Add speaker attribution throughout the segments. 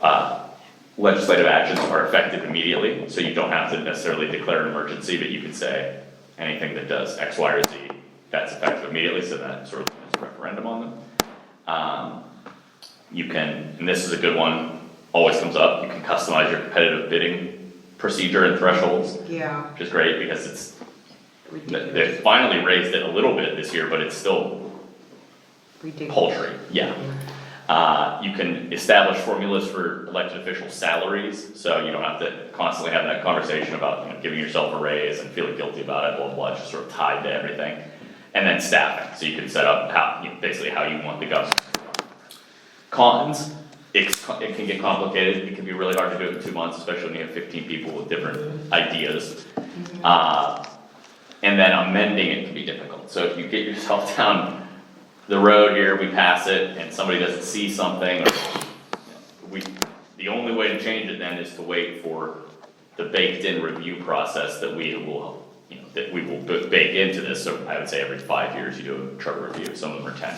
Speaker 1: uh, legislative actions are effective immediately, so you don't have to necessarily declare an emergency, but you could say anything that does X, Y, or Z, that's effective immediately, so that sort of limits a referendum on them. Um, you can, and this is a good one, always comes up, you can customize your competitive bidding procedure and thresholds,
Speaker 2: Yeah,
Speaker 1: which is great because it's, they- they
Speaker 2: ridiculous,
Speaker 1: finally raised it a little bit this year, but it's still
Speaker 2: ridiculous.
Speaker 1: paltry, yeah. Uh, you can establish formulas for elected official salaries, so you don't have to constantly have that conversation about, you know, giving yourself a raise and feeling guilty about it, blah, blah, blah, it's just sort of tied to everything. And then staffing, so you can set up how, you know, basically how you want the government. to run. Cons, it, it can get complicated, it can be really hard to do it in two months, especially when you have fifteen people with different ideas. Uh, and then amending it can be difficult, so if you get yourself down the road here, we pass it, and somebody doesn't see something, or, we, the only way to change it then is to wait for the baked-in review process that we will, you know, that we will b- bake into this, so I would say every five years you do a charter review, some of them are ten.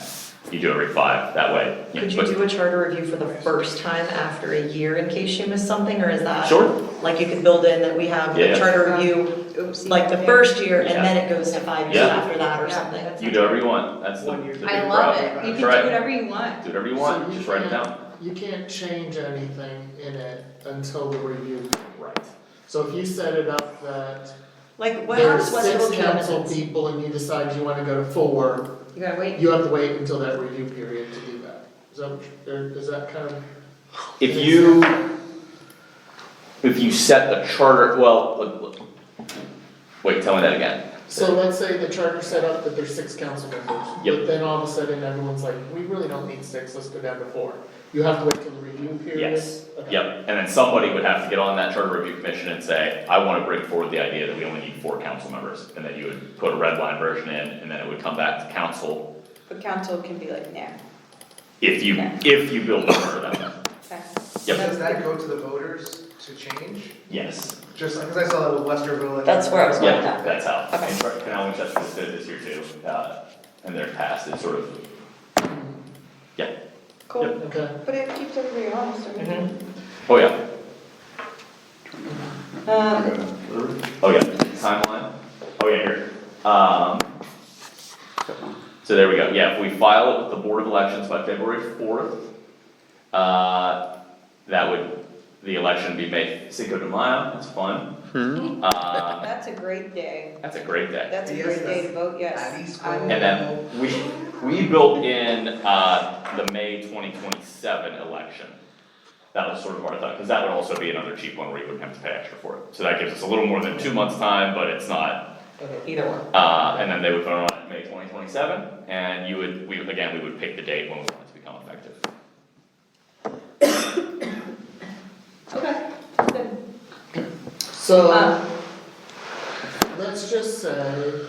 Speaker 1: You do every five, that way, you know,
Speaker 3: Could you
Speaker 1: but-
Speaker 3: do a charter review for the first time after a year in case you miss something, or is that?
Speaker 1: Sure.
Speaker 3: Like you could build in that we have the
Speaker 1: Yeah.
Speaker 3: charter review, like the first year, and
Speaker 1: Yeah.
Speaker 3: then it goes to five years
Speaker 1: Yeah.
Speaker 3: after that or
Speaker 2: Yeah.
Speaker 3: something?
Speaker 1: You do whatever you want, that's the, the
Speaker 4: One year.
Speaker 1: big
Speaker 2: I love
Speaker 1: problem.
Speaker 2: it, you can
Speaker 1: That's
Speaker 2: do
Speaker 1: right.
Speaker 2: whatever you want,
Speaker 1: Do whatever you
Speaker 4: So
Speaker 1: want,
Speaker 4: you
Speaker 1: just write it
Speaker 4: can't-
Speaker 1: down.
Speaker 4: You can't change anything in it until the review.
Speaker 1: Right.
Speaker 4: So if you set it up that
Speaker 3: Like what
Speaker 4: there's
Speaker 3: happens when
Speaker 4: six
Speaker 3: people do
Speaker 4: council
Speaker 3: amendments?
Speaker 4: people and you decide you wanna go to four,
Speaker 2: you gotta wait.
Speaker 4: you have to wait until that review period to do that. Is that, what- or is that kind of?
Speaker 1: If you, if you set the charter, well, look, look. wait, tell me that again.
Speaker 4: So let's say the charter set up that there's six council members,
Speaker 1: Yep.
Speaker 4: but then all of a sudden everyone's like, we really don't need six, let's go down to four. You have to wait till the review period?
Speaker 1: Yes,
Speaker 4: Okay.
Speaker 1: yep, and then somebody would have to get on that charter review commission and say, I wanna bring forward the idea that we only need four council members. And then you would put a red line version in, and then it would come back to council
Speaker 5: But council can be like, nah,
Speaker 1: if you, if you build a charter that way.
Speaker 5: okay.
Speaker 1: Yep,
Speaker 6: Does that go to the voters to change?
Speaker 1: yes,
Speaker 6: Just, because I saw that with Westerville. and-
Speaker 3: That's where I was going.
Speaker 1: yeah, that's how.
Speaker 3: Okay.
Speaker 1: And Park- Canal Winchester did this year too, uh, and their past is sort of, yeah,
Speaker 5: Cool,
Speaker 4: Okay.
Speaker 5: but it keeps everybody honest, I mean.
Speaker 1: oh yeah,
Speaker 5: Um,
Speaker 1: oh yeah, timeline, oh yeah, here. Um, so there we go, yeah, if we file it with the Board of Elections by February fourth, uh, that would, the election be May Cinco de Mayo, that's fun. Uh,
Speaker 5: that's a great day,
Speaker 1: that's a great day.
Speaker 5: that's a
Speaker 6: Yes,
Speaker 5: great day to vote
Speaker 6: At
Speaker 5: yes.
Speaker 6: least
Speaker 5: I
Speaker 6: one.
Speaker 1: And then we, we built in, uh, the May twenty twenty-seven election. That was sort of our thought, cause that would also be another cheap one where you wouldn't have to pay extra for it. So that gives us a little more than two months' time, but it's not,
Speaker 4: Okay.
Speaker 3: Either one.
Speaker 1: uh, and then they would vote on it May twenty twenty-seven, and you would, we, again, we would pick the date when we want it to become effective.
Speaker 5: Okay, good.
Speaker 4: So.
Speaker 3: Uh,
Speaker 5: Um,
Speaker 4: Let's just say,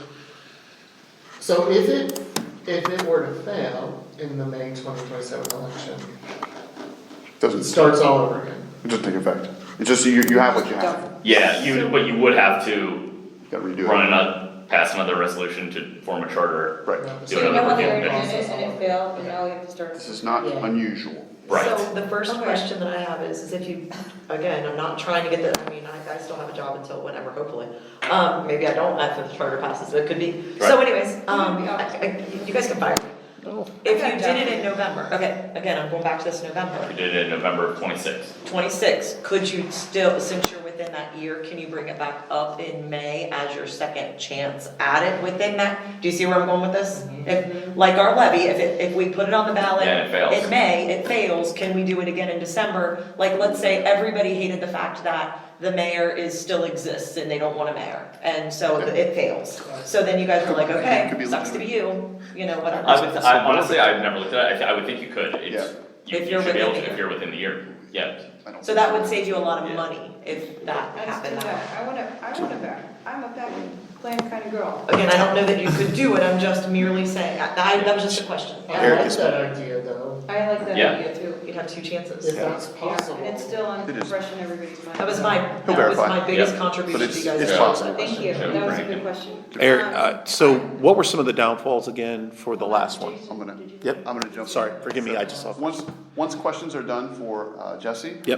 Speaker 4: so if it, if it were to fail in the May twenty twenty-seven election, it
Speaker 7: Doesn't start,
Speaker 4: starts all over again.
Speaker 7: it doesn't take effect. It's just, you, you have what you have,
Speaker 1: Yeah, you, but you would have to
Speaker 7: you gotta redo it.
Speaker 1: run another, pass another resolution to form a charter.
Speaker 7: Right,
Speaker 1: Do
Speaker 5: So you know
Speaker 1: another
Speaker 5: when they
Speaker 1: review
Speaker 5: already
Speaker 1: commission.
Speaker 5: did it and it failed, and now we have to start.
Speaker 7: this is not
Speaker 3: Yeah.
Speaker 7: unusual.
Speaker 1: Right.
Speaker 3: So the first
Speaker 5: Okay.
Speaker 3: question that I have is, is if you, again, I'm not trying to get the, I mean, I, I still have a job until whenever, hopefully. Um, maybe I don't after the charter passes, but it could be. So
Speaker 1: Right.
Speaker 3: anyways, um, I, I, you guys can fire me.
Speaker 4: Oh.
Speaker 3: If you did it in November, okay, again, I'm going back to this
Speaker 1: We
Speaker 3: November,
Speaker 1: did it in November of twenty-six.
Speaker 3: twenty-six, could you still, since you're within that year, can you bring it back up in May as your second chance at it within that? Do you see where I'm going with this?
Speaker 7: Mm-hmm.
Speaker 3: If, like our levy, if it, if we put it on the ballot.
Speaker 1: Yeah, and it fails.
Speaker 3: In May, it fails, can we do it again in December? Like, let's say everybody hated the fact that the mayor is, still exists and they don't want a mayor, and so it fails. So then you guys are like, okay,
Speaker 7: Could be
Speaker 3: sucks to be you, you know, whatever.
Speaker 1: I would, I honestly, I've never looked at it, I, I would think you could, it's, you
Speaker 3: If
Speaker 1: you
Speaker 3: you're
Speaker 1: should be able
Speaker 3: within
Speaker 1: to,
Speaker 3: the
Speaker 1: if you're within the year, yeah.
Speaker 7: I don't-
Speaker 3: So that would save you a lot of
Speaker 1: Yeah.
Speaker 3: money if that
Speaker 5: Let's do
Speaker 3: happened.
Speaker 5: that. I wanna, I wanna back, I'm a back plan kind of girl.
Speaker 3: Again, I don't know that you could do it, I'm just merely saying, I- that, that was just a question.
Speaker 4: I
Speaker 7: Eric
Speaker 4: like
Speaker 7: is-
Speaker 4: that idea though,
Speaker 5: I like that
Speaker 1: Yeah.
Speaker 5: idea too.
Speaker 3: You'd have two
Speaker 4: if
Speaker 3: chances.
Speaker 4: that's possible.
Speaker 5: And it's still on,
Speaker 7: It is.
Speaker 5: fresh in everybody's mind.
Speaker 3: That was my,
Speaker 7: He'll
Speaker 3: that was
Speaker 7: verify.
Speaker 3: my biggest
Speaker 1: Yeah.
Speaker 7: But
Speaker 3: contribution to
Speaker 7: it's,
Speaker 3: you guys.
Speaker 7: it's possible.
Speaker 5: Thank you, that was a good question.
Speaker 8: Eric,
Speaker 5: Um,
Speaker 8: uh, so what were some of the downfalls again for the last one?
Speaker 7: I'm gonna,
Speaker 8: Yep.
Speaker 7: I'm gonna jump.
Speaker 8: Sorry, forgive me, I just saw.
Speaker 7: Once, once questions are done for uh, Jesse.
Speaker 8: Yep.